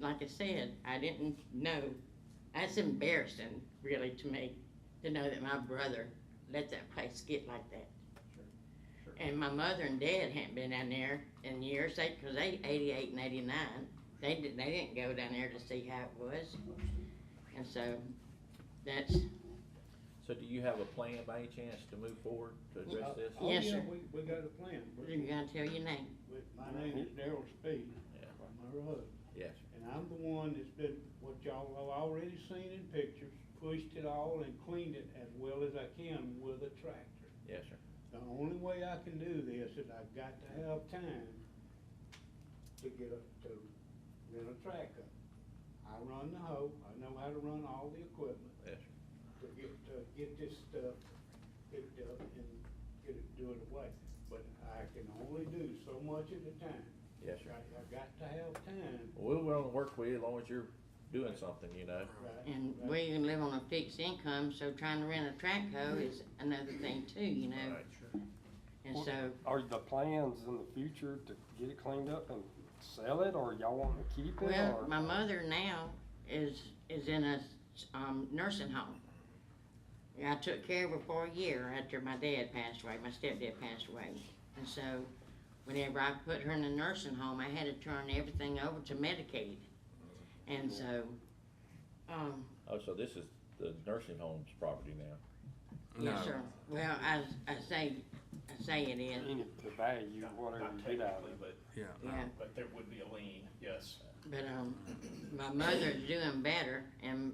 like I said, I didn't know. That's embarrassing, really, to me, to know that my brother let that place get like that. Sure, sure. And my mother and dad hadn't been down there in years, they, cause they eighty-eight and eighty-nine, they didn't, they didn't go down there to see how it was. And so, that's, So do you have a plan by any chance to move forward to address this? Oh, Yes, yeah, sir. We, we got a plan. We- you gotta tell your name. we- My name is Daryl Speed. Yeah. From my husband. Yes, And I'm the one that's been, what y'all have already seen in pictures, pushed it all and cleaned it as well as I can with a tractor. yes, sir. The only way I can do this is I've got to have time to get a, to rent a tractor. I run the hoe, I know how to run all the equipment Yes, to get, to get this stuff picked up and get it, do it away. But I can only do so much at a time. yes, sir. I, I've got to have time. Well, we're willing to work with you as long as you're doing something, you know? right, And right. we live on a fixed income, so trying to rent a track hoe is another thing too, you know, Right. and so, Are the plans in the future to get it cleaned up and sell it, or y'all want to keep it, well, or? my mother now is, is in a, s- um, nursing home. And I took care of her for a year after my dad passed away, my stepdad passed away, and so whenever I put her in a nursing home, I had to turn everything over to Medicaid. And so, um, Oh, so this is the nursing home's property now? yes, sir, well, I, I say, I say it is, Any, the value, whatever you get out of it. but, Yeah. yeah. but there would be a lien, yes. But um, my mother's doing better, and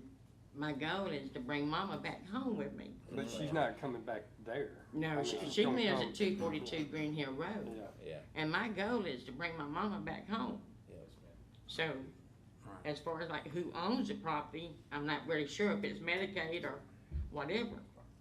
my goal is to bring Mama back home with me. But she's not coming back there. No, she, she lives at two forty-two Green Hill Yeah, Road, Yeah, and my goal is to bring my mama back home. yes, So, Right. as far as like who owns the property, I'm not really sure if it's Medicaid or whatever.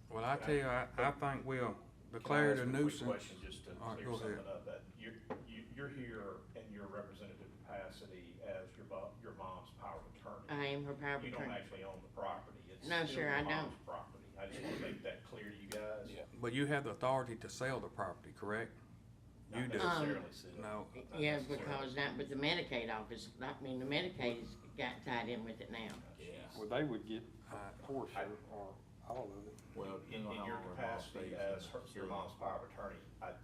Well, I tell you, I, I think we'll declare it a Can I nuisance. ask a quick question, just to All right, clear go something ahead. up? That You're, you- you're here in your representative capacity as your bo- your mom's power of attorney. I am her Uh, power of You don't attorney. actually own the property. It's No, still sir, your I mom's Property. I just want to make that clear to you guys. But you have the authority to sell the property, correct? Not You do. Um, necessarily, Sid. No, Not Yeah, necessarily. because not with the Medicaid office, I mean, the Medicaid's got tied in with it now. yeah. well, they would get I- a portion or all of it. Well, In, in your capacity as her, your mom's power of attorney, I,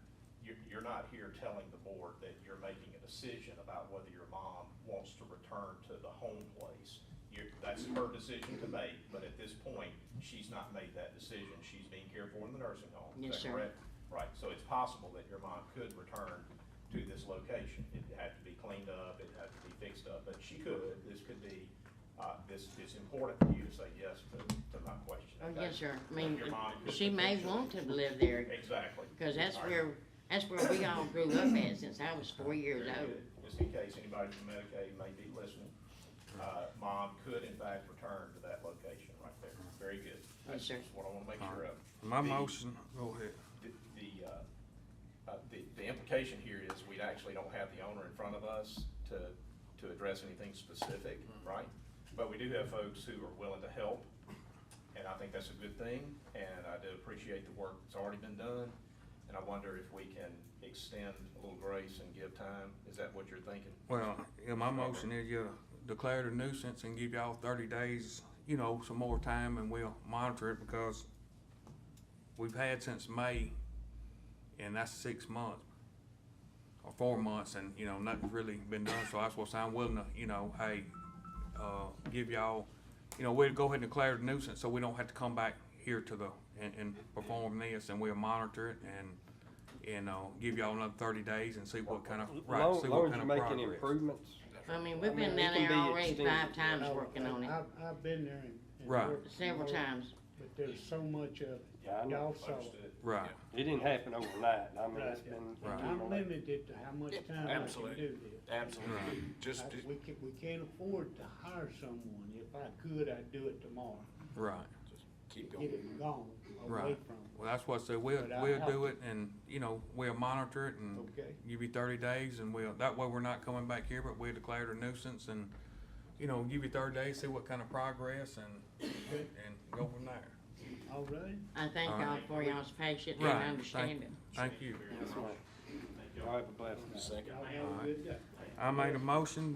you're, you're not here telling the board that you're making a decision about whether your mom wants to return to the home place. You're, that's her decision to make, but at this point, she's not made that decision. She's being cared for in the nursing home. Is Yes, that sir. correct? Right, so it's possible that your mom could return to this location. It had to be cleaned up, it had to be fixed up, but she could. This could be, uh, this, it's important for you to say yes to, to my question. Oh, okay? yes, sir. I mean, Your mom could she may potentially- want to live there, Exactly. Because that's All right. where, that's where we all grew up at since I was four years Very old. good. Just in case anybody from Medicaid may be listening, uh, mom could in fact return to that location right there. Very good. That's sir. just what I wanna make sure of. my The- motion, go ahead. The, the, uh, uh, the, the implication here is we actually don't have the owner in front of us to, to address anything specific, right? But we do have folks who are willing to help, and I think that's a good thing, and I do appreciate the work that's already been done. And I wonder if we can extend a little grace and give time, is that what you're thinking? Well, yeah, my motion is you declare it a nuisance and give y'all thirty days, you know, some more time and we'll monitor it because we've had since May and that's six months or four months and, you know, nothing's really been done. So that's what I'm willing to, you know, hey, uh, give y'all, you know, we'll go ahead and declare it a nuisance so we don't have to come back here to the, and, and perform this and we'll monitor it and, and, uh, give y'all another thirty days and see what kind of, right, Long- see long what as kind you of make progress. any Improvements. I mean, we've I been mean, down it there can be already five extended. times I- working on it, I've, I've been there and. and Right. worked and several worked, times. But there's so much of it. Yeah, I know. Y'all saw it. Understood. Right, It didn't happen overnight. I mean, it's Right. been. Right. I'm limited to how much time I can Absolutely. do this. Absolutely. Just, I- We can, we can't afford to hire someone. If I could, I'd do it tomorrow. right. keep Get it gone, away Right. from it. Well, that's what I said, we'll, But I we'll have do it and, you know, we'll monitor it and Okay. give you thirty days and we'll, that way we're not coming back here, but we declared a nuisance and, you know, give you thirty days, see what kind of progress and, and go from there. All right? I thank All y'all for y'all's patience and Right, thank- understanding. Thank you. Yes, ma'am. Y'all have a blessed night. Second. Y'all have a good day. I made a motion